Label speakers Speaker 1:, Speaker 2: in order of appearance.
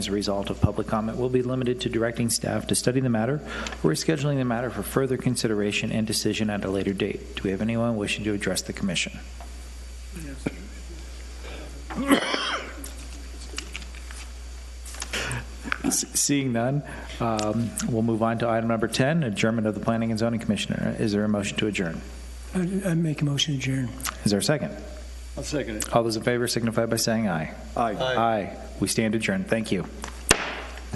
Speaker 1: As a result of public comment, will be limited to directing staff to study the matter or scheduling the matter for further consideration and decision at a later date. Do we have anyone wishing to address the commission? S- Seeing none, um, we'll move on to item number 10, adjournment of the Planning and Zoning Commissioner. Is there a motion to adjourn?
Speaker 2: I I make a motion to adjourn.
Speaker 1: Is there a second?
Speaker 3: I'll second it.
Speaker 1: All those in favor signify by saying aye.
Speaker 3: Aye.
Speaker 1: Aye. We stand adjourned. Thank you.